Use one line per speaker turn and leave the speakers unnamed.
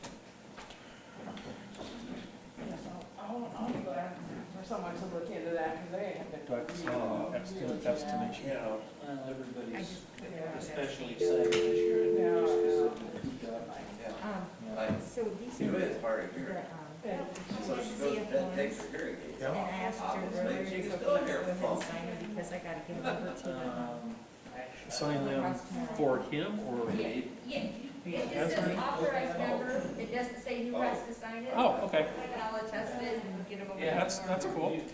but uh, abstin- abstination.
You know,
I
everybody's
just put it out there.
especially excited this year and New Year's because of the
Yeah,
Um,
like,
so these
it
are
is hard to
the,
hear.
um,
So she goes to bed, takes her hearing aids.
and I
out.
asked her
Obviously,
earlier,
she can
so
still
please
hear
go ahead
phone.
and sign it because I gotta give it over to the.
um,
Sign them for him or?
Yeah, yeah, it just says
Oh.
authorized member, it doesn't say who has to sign it.
Oh, okay.
I'll attest it and get them over.
Yeah,
That's, that's cool.